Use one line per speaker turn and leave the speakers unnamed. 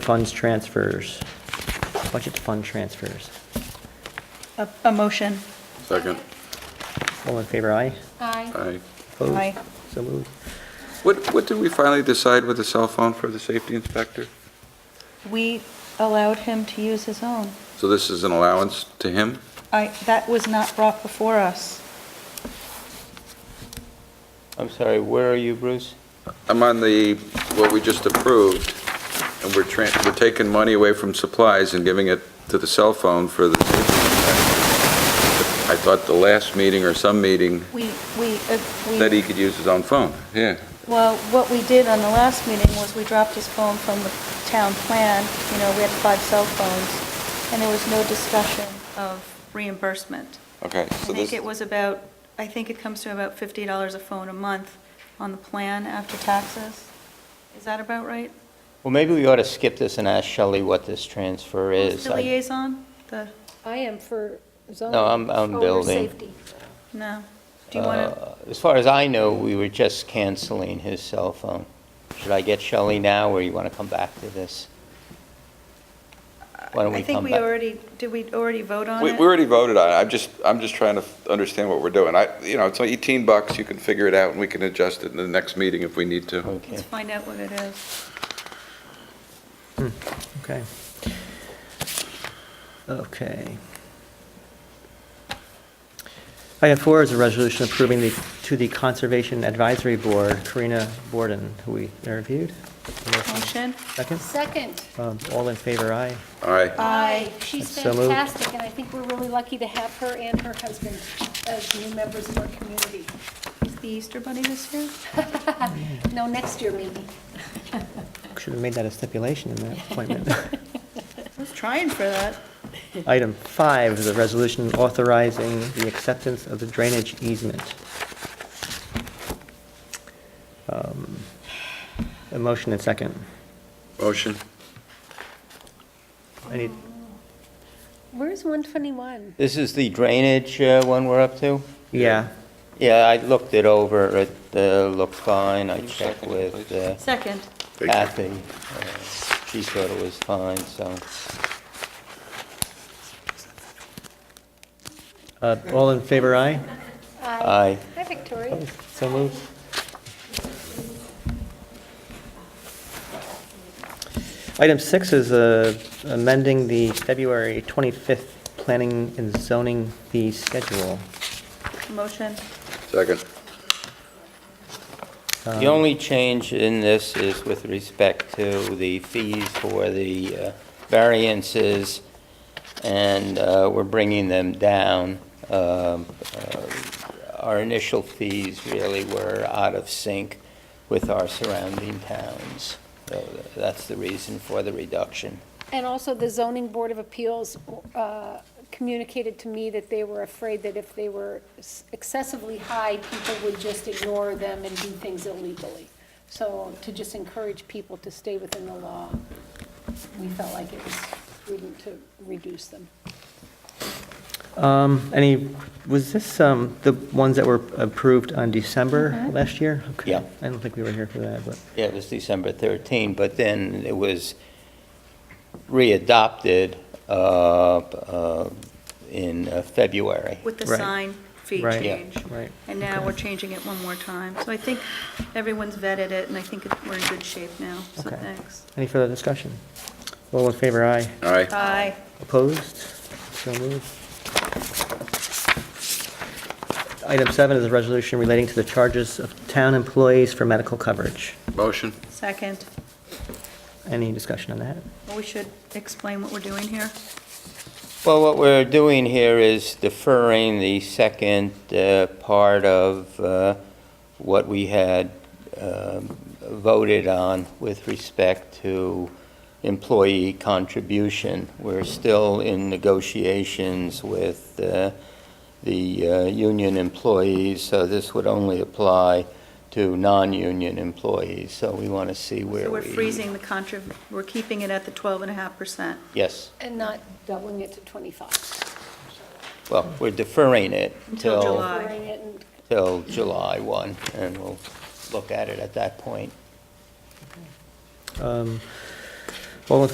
Funds transfers, budget fund transfers.
A, a motion.
Second.
All in favor, aye?
Aye.
Aye.
Opposed?
Aye.
So moved.
What, what did we finally decide with the cell phone for the safety inspector?
We allowed him to use his own.
So this is an allowance to him?
I, that was not brought before us.
I'm sorry, where are you, Bruce?
I'm on the, what we just approved, and we're tran, we're taking money away from supplies and giving it to the cell phone for the safety inspector. I thought the last meeting or some meeting
We, we, uh,
that he
we,
could use his own phone, yeah.
well, what we did on the last meeting was we dropped his phone from the town plan. You know, we had five cell phones, and there was no discussion of reimbursement.
Okay,
I
so this,
think it was about, I think it comes to about fifty dollars a phone a month on the plan after taxes. Is that about right?
Well, maybe we ought to skip this and ask Shelley what this transfer
Who's
is.
The
I-
liaison, the,
I am for zoning. Oh,
No, I'm- I'm
for
building.
safety.
no. Do you want to,
uh, As far as I know, we were just canceling his cell phone. Should I get Shelley now, or you want to come back to this? Why don't
I
we
think
come
we
back?
already, did we already vote on
we,
it?
we already voted on it, I'm just, I'm just trying to f- understand what we're doing. I, you know, it's like 18 bucks, you can figure it out, and we can adjust it in the next meeting if we need to.
Let's
Okay.
find out what it is.
Okay. Okay. Item four is a resolution approving the, to the Conservation Advisory Board, Karina Borden, who we interviewed.
Motion?
Second?
Second.
Um, All in favor, aye?
All right.
Aye.
She's
So moved.
fantastic, and I think we're really lucky to have her and her husband as new members of our community.
Is the Easter Bunny this year?
No, next year maybe.
Should have made that a stipulation in that appointment.
I was trying for that.
Item five is a resolution authorizing the acceptance of the drainage easement. Um, A motion and second.
Motion?
Any,
Where's 121?
This is the drainage uh, one we're up to?
yeah,
Yeah, I looked it over, it uh, looked fine, I checked
second it,
with
please?
uh,
Second.
Thank you.
Kathy, uh, she thought it was fine, so.
Uh, all in favor, aye?
Aye.
Hi, Victoria.
So moved. Item six is uh, amending the February 25th planning and zoning fee schedule.
Motion?
Second.
The
Um,
only change in this is with respect to the fees for the uh, variances, and uh, we're bringing them down. Um, uh, Our initial fees really were out of sync with our surrounding towns. So That's the reason for the reduction.
And also, the zoning board of appeals uh, communicated to me that they were afraid that if they were excessively high, people would just ignore them and do things illegally. So to just encourage people to stay within the law, we felt like it was prudent to reduce them.
Um, Any, was this um, the ones that were approved on
Uh-huh.
December last year? Okay.
Yeah.
I don't think we were here for that, but,
Yeah, it was December 13, but then it was readopted uh, uh, in uh, February.
With the
Right.
sign fee
Right.
Yeah.
change.
right.
And now we're changing it one more time. So I think everyone's vetted it, and I think it- we're in good shape now, so
Okay.
thanks.
Any further discussion? All in favor, aye?
All right.
Aye.
Opposed? So moved. Item seven is a resolution relating to the charges of town employees for medical coverage.
Motion?
Second.
Any discussion on that?
Well, we should explain what we're doing here.
Well, what we're doing here is deferring the second uh, part of uh, what we had um, voted on with respect to employee contribution. We're still in negotiations with uh, the uh, union employees, so this would only apply to non-union employees. So we want to see where we...
So we're freezing the contra, we're keeping it at the 12.5%.
Yes.
And not doubling it to 25.
Well, we're deferring it
Until
till...
July. Aye.
Lowering it and
till July 1, and we'll look at it at that point.
Um, All in